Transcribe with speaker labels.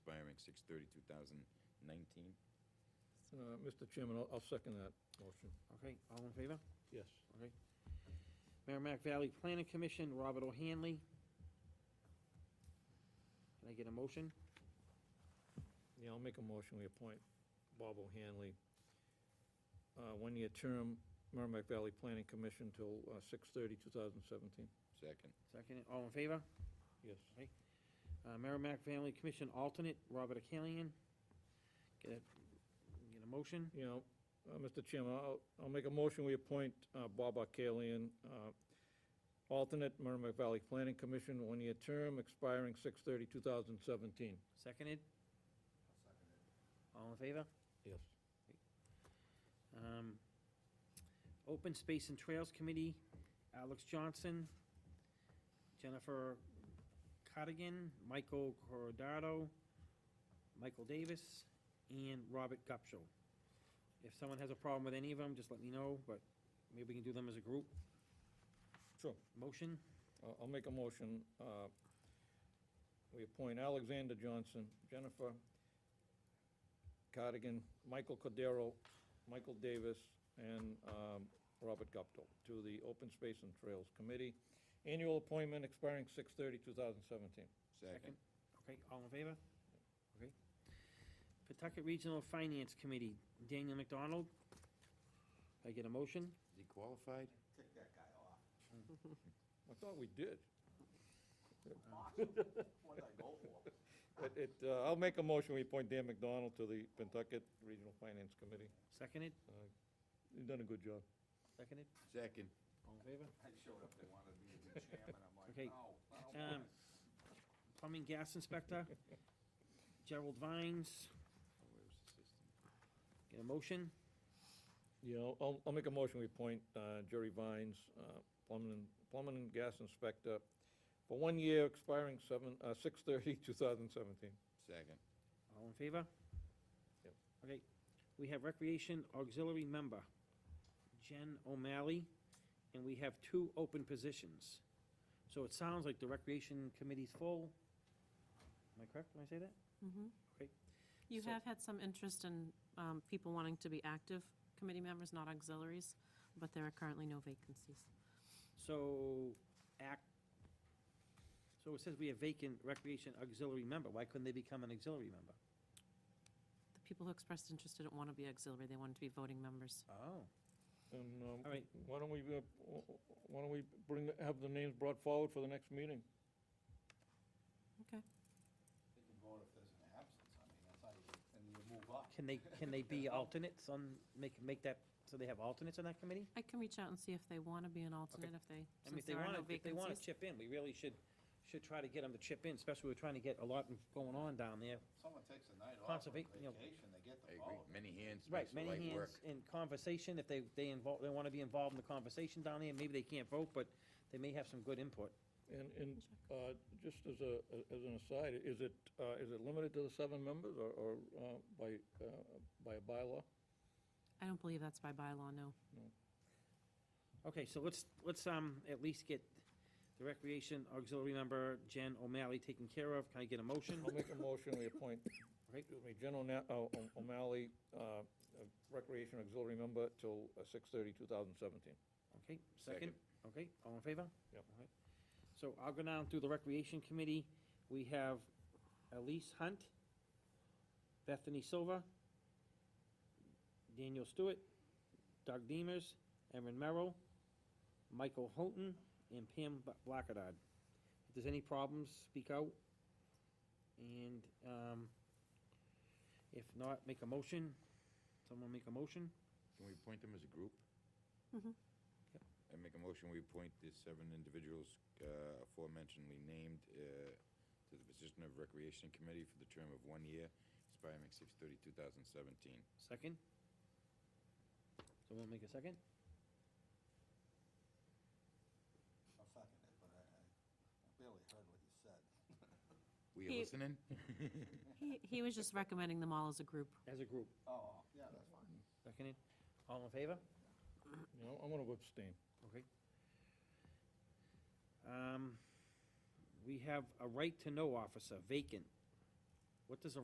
Speaker 1: six thirty, two thousand nineteen.
Speaker 2: Uh, Mr. Chairman, I'll, I'll second that motion.
Speaker 3: Okay, all in favor?
Speaker 2: Yes.
Speaker 3: Okay. Merrimack Valley Planning Commission, Robert O'Hanley. Can I get a motion?
Speaker 2: Yeah, I'll make a motion, we appoint Bob O'Hanley, uh, one-year term, Merrimack Valley Planning Commission till, uh, six thirty, two thousand seventeen.
Speaker 1: Second,
Speaker 3: Second, all in favor?
Speaker 2: Yes.
Speaker 3: Uh, Merrimack Valley Commission alternate, Robert O'Callaghan. Get a, get a motion?
Speaker 2: You know, uh, Mr. Chairman, I'll, I'll make a motion, we appoint, uh, Bob Arcalian, uh, alternate Merrimack Valley Planning Commission, one-year term, expiring six thirty, two thousand seventeen.
Speaker 3: Seconded? All in favor?
Speaker 2: Yes.
Speaker 3: Um, Open Space and Trails Committee, Alex Johnson, Jennifer Cottigan, Michael Corradaro, Michael Davis, and Robert Gupshaw. If someone has a problem with any of them, just let me know, but maybe we can do them as a group.
Speaker 2: Sure.
Speaker 3: Motion?
Speaker 2: I'll- I'll make a motion. uh, We appoint Alexander Johnson, Jennifer Cardigan, Michael Cordero, Michael Davis, and um, Robert Guptill to the Open Space and Trails Committee. Annual appointment expiring 6/30/2017.
Speaker 1: second,
Speaker 3: Okay, all in favor? Okay. Pawtucket Regional Finance Committee, Daniel McDonald. I get a motion?
Speaker 1: is he qualified?
Speaker 4: Take that guy off.
Speaker 2: I thought we did.
Speaker 4: Awesome. What did I go for?
Speaker 2: It- It, uh, I'll make a motion, we appoint Dan McDonald to the Pentucket Regional Finance Committee.
Speaker 3: Seconded?
Speaker 2: Uh, You've done a good job.
Speaker 3: Seconded.
Speaker 1: Second,
Speaker 3: All in favor?
Speaker 4: I showed up, they wanted me to be chairman, I'm like,
Speaker 3: Okay,
Speaker 4: no. I don't
Speaker 3: um,
Speaker 4: want it."
Speaker 3: Plumbing Gas Inspector, Gerald Vines. Get a motion?
Speaker 2: Yeah, I'll- I'll, I'll make a motion, we appoint uh, Jerry Vines, uh, plumbing, and- plumbing and gas inspector, for one year expiring seven, uh, six thirty, two thousand seventeen.
Speaker 1: second,
Speaker 3: All in favor?
Speaker 2: Yep.
Speaker 3: Okay, we have Recreation Auxiliary Member, Jen O'Malley, and we have two open positions. So it sounds like the Recreation Committee's full. Am I correct when I say that?
Speaker 5: Mhm.
Speaker 3: Okay,
Speaker 5: You
Speaker 3: so-
Speaker 5: have had some interest in um, people wanting to be active committee members, not auxiliaries, but there are currently no vacancies.
Speaker 3: So, act, so it says we have vacant Recreation Auxiliary Member. Why couldn't they become an auxiliary member?
Speaker 5: The people who expressed interest didn't want to be auxiliary, they wanted to be voting members.
Speaker 3: Oh.
Speaker 2: And, um,
Speaker 3: All right.
Speaker 2: why don't we, uh, wh- wh- why don't we bring, the- have the names brought forward for the next meeting?
Speaker 5: Okay.
Speaker 4: They can vote if there's an absence, I mean, that's how you, and you move up.
Speaker 3: Can they, can they be alternates on, make, make that, so they have alternates on that committee?
Speaker 5: I can reach out and see if they want to be an alternate, if
Speaker 3: I
Speaker 5: they,
Speaker 3: mean,
Speaker 5: since
Speaker 3: if they
Speaker 5: there are
Speaker 3: want
Speaker 5: no
Speaker 3: to, if they want to
Speaker 5: vacancies.
Speaker 3: chip in, we really should, should try to get them to chip in, especially we're trying to get a lot going on down there.
Speaker 4: Someone takes a night off on
Speaker 3: Conserva- you know-
Speaker 4: vacation, they get
Speaker 1: I
Speaker 4: the
Speaker 1: agree,
Speaker 4: vote.
Speaker 1: many hands
Speaker 3: Right,
Speaker 1: makes the
Speaker 3: many
Speaker 1: light
Speaker 3: hands
Speaker 1: work.
Speaker 3: in conversation, if they, they involve, they want to be involved in the conversation down there, maybe they can't vote, but they may have some good input.
Speaker 2: And, and, uh, just as a, as an aside, is it, uh, is it limited to the seven members or, or, uh, by, uh, by a bylaw?
Speaker 5: I don't believe that's by bylaw, no.
Speaker 3: Okay, so let's, let's, um, at least get the recreation auxiliary member Jen O'Malley taken care of. Can I get a motion?
Speaker 2: I'll make a motion, we appoint,
Speaker 3: Right.
Speaker 2: excuse me, Jen O'Na- O- O- O'Malley, uh, Recreation Auxiliary Member till uh, 6/30, 2017.
Speaker 3: Okay, second?
Speaker 1: Second.
Speaker 3: Okay, all in favor?
Speaker 2: Yep.
Speaker 3: All right. So I'll go down through the Recreation Committee. We have Elise Hunt, Bethany Silva, Daniel Stewart, Doug Demers, Erin Merrill, Michael Houghton, and Pam Bla- Blackadad. If there's any problems, speak out. And, um, if not, make a motion. Someone make a motion?
Speaker 1: Can we appoint them as a group?
Speaker 5: Mhm.
Speaker 3: Yep.
Speaker 1: I make a motion, we appoint the seven individuals uh, aforementionedly named uh, to the position of Recreation Committee for the term of one year, expiring six thirty, two thousand seventeen.
Speaker 3: Second? Someone make a second?
Speaker 4: I'll second Oh, it, but I, I barely heard what you said.
Speaker 1: We
Speaker 5: He-
Speaker 1: are listening?
Speaker 5: He, he was just recommending them all as a group.
Speaker 3: As a group.
Speaker 4: Oh, yeah, that's fine.
Speaker 3: Seconded. All in favor?
Speaker 2: You know, I'm going to abstain.
Speaker 3: Okay. Um, we have a right-to-know officer, vacant. What does a